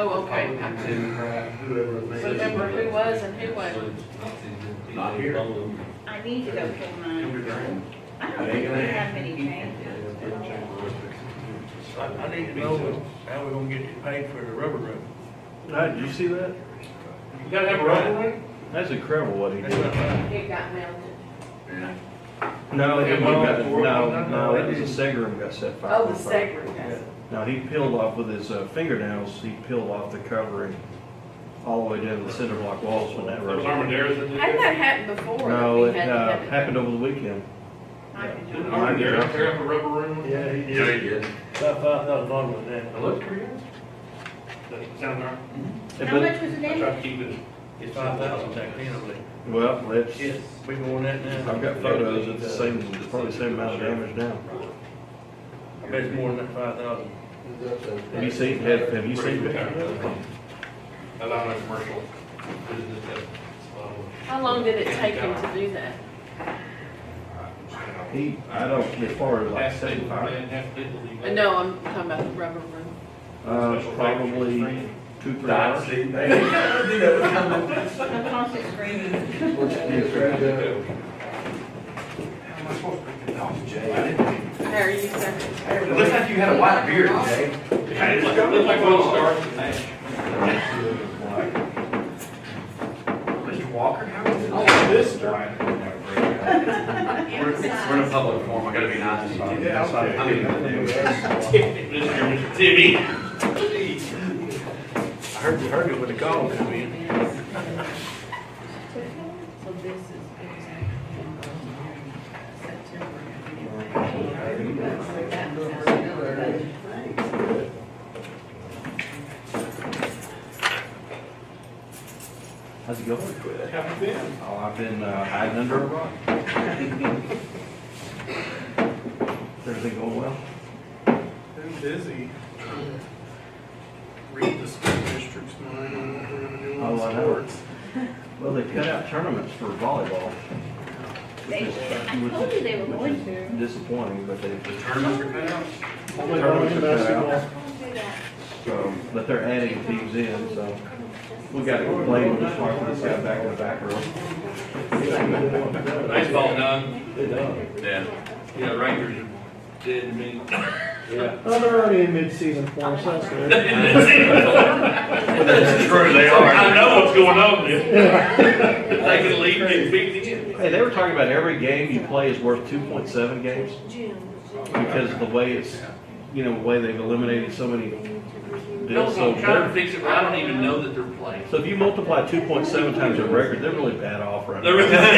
Oh, okay. Democrat, whoever it may be. So Remember who was and who wasn't. Not here. I need to go pull mine. I don't think we have many changes. I, I need to know how we're gonna get you paid for the rubber room. Hey, Did you see that? You gotta have a rubber room? That's incredible what he That's did. what I'm, It got melted. No, Yeah, it we got got- four of no, them. no, it was a Segarum got set fire. Oh, the sacred yes. Now, he peeled off with his uh, fingernails, he peeled off the covering all the way down to the cinder block walls when that rose. Hadn't that happened before? that No, we it had to uh, have it- happened over the weekend. I could do it. Mike Johnson. up a rubber room? Yeah, he Yeah, did. he did. about five thousand dollars with that. Sound right? Yeah, How but- much was the I damage? tried to keep it. It's five thousand back then, I believe. Well, let's, Yes, we going that now. I've got photos, it's the same, it's probably the same amount of damage now. I bet it's more than that five thousand. Have you seen, have have you Pretty seen? good. it? I love my commercial business that, um, How long did it take him to do that? He, I don't, as far as like Half setting people, fire, man, half people leave Uh, No, I'm talking about the rubber room. uh, probably two, three hours. The constant screaming. There, you said, It looks like you had a white beard today. Hey, look, look like one star. Mr. Walker, how is it? Oh, We're, we're in a public forum, I gotta be nice. Yeah, okay. I mean, Mr. Timmy. I heard, you heard it with the call come in. So this is September. How's it going? Oh, I've been uh, hiding under a rock. Everything going well? Been busy. trying to Read the school district's mind on what we're gonna do on Oh, I know. sports. Well, they cut out tournaments for volleyball. which They is- did. I told you they were which is going to. Disappointing, but they, The tournaments are cut out. tournaments are cut out, do that. so, but they're adding teams in, so we gotta complain when this part, this guy back in the back room. Baseball done. They done. Yeah. Yeah, Rangers are dead to me. Yeah. Well, they're already in mid-season form, so that's good. That's true, they are. I know what's going on there. If they can leave, they beat the end. Hey, they were talking about every game you play is worth two point seven games because of the way it's, you know, the way they've eliminated so many deals. So No, I'm trying they're- to fix it, but I don't even know that they're playing. So if you multiply two point seven times their record, they're really bad off right They're- now.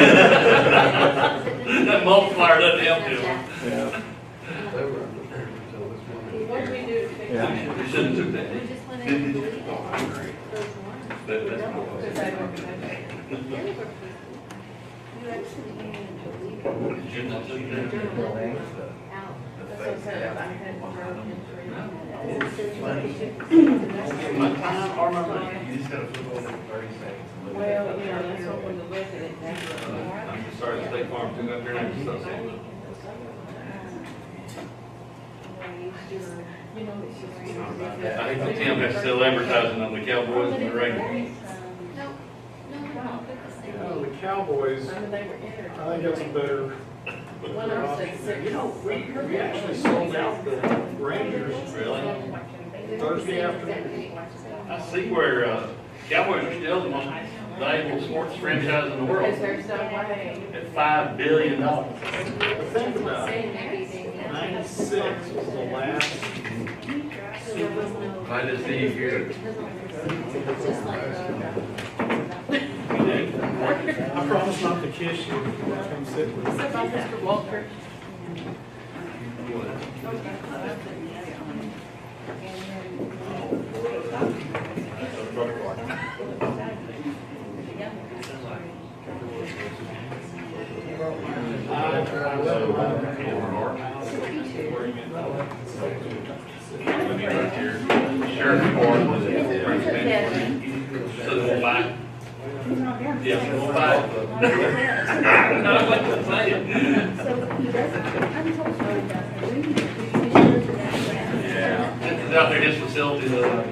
That multiplier doesn't help them. Yeah. what do we do to fix Yeah. it? We shouldn't do that. That- that's not what I Because said. they don't have- Shouldn't I do that? That's what I said, I had broken three. Time or money? You just gotta put on thirty seconds. and look Well, at it. you know, that's what we're looking at now. I'm just sorry, the State Farm took up their name, so. You know, it's just. I think the town has to sell advertising on the Cowboys and the Rangers. Well, The Cowboys, I mean, they were entered. I think that's a better. One of them said six. You know, we, we actually sold out the Rangers Really? Thursday afternoon. I see where, uh, Cowboys are still the most valuable sports franchise in the Because world, there's no way. at five billion dollars. But Think about it, ninety-six was the last I just see you here. I promise not to kiss you if you come sit with me. So about Mr. Walker. Sheriff Department, so they'll buy. Yeah, they'll buy. No, I wasn't saying. This is out there, his facility, uh, though.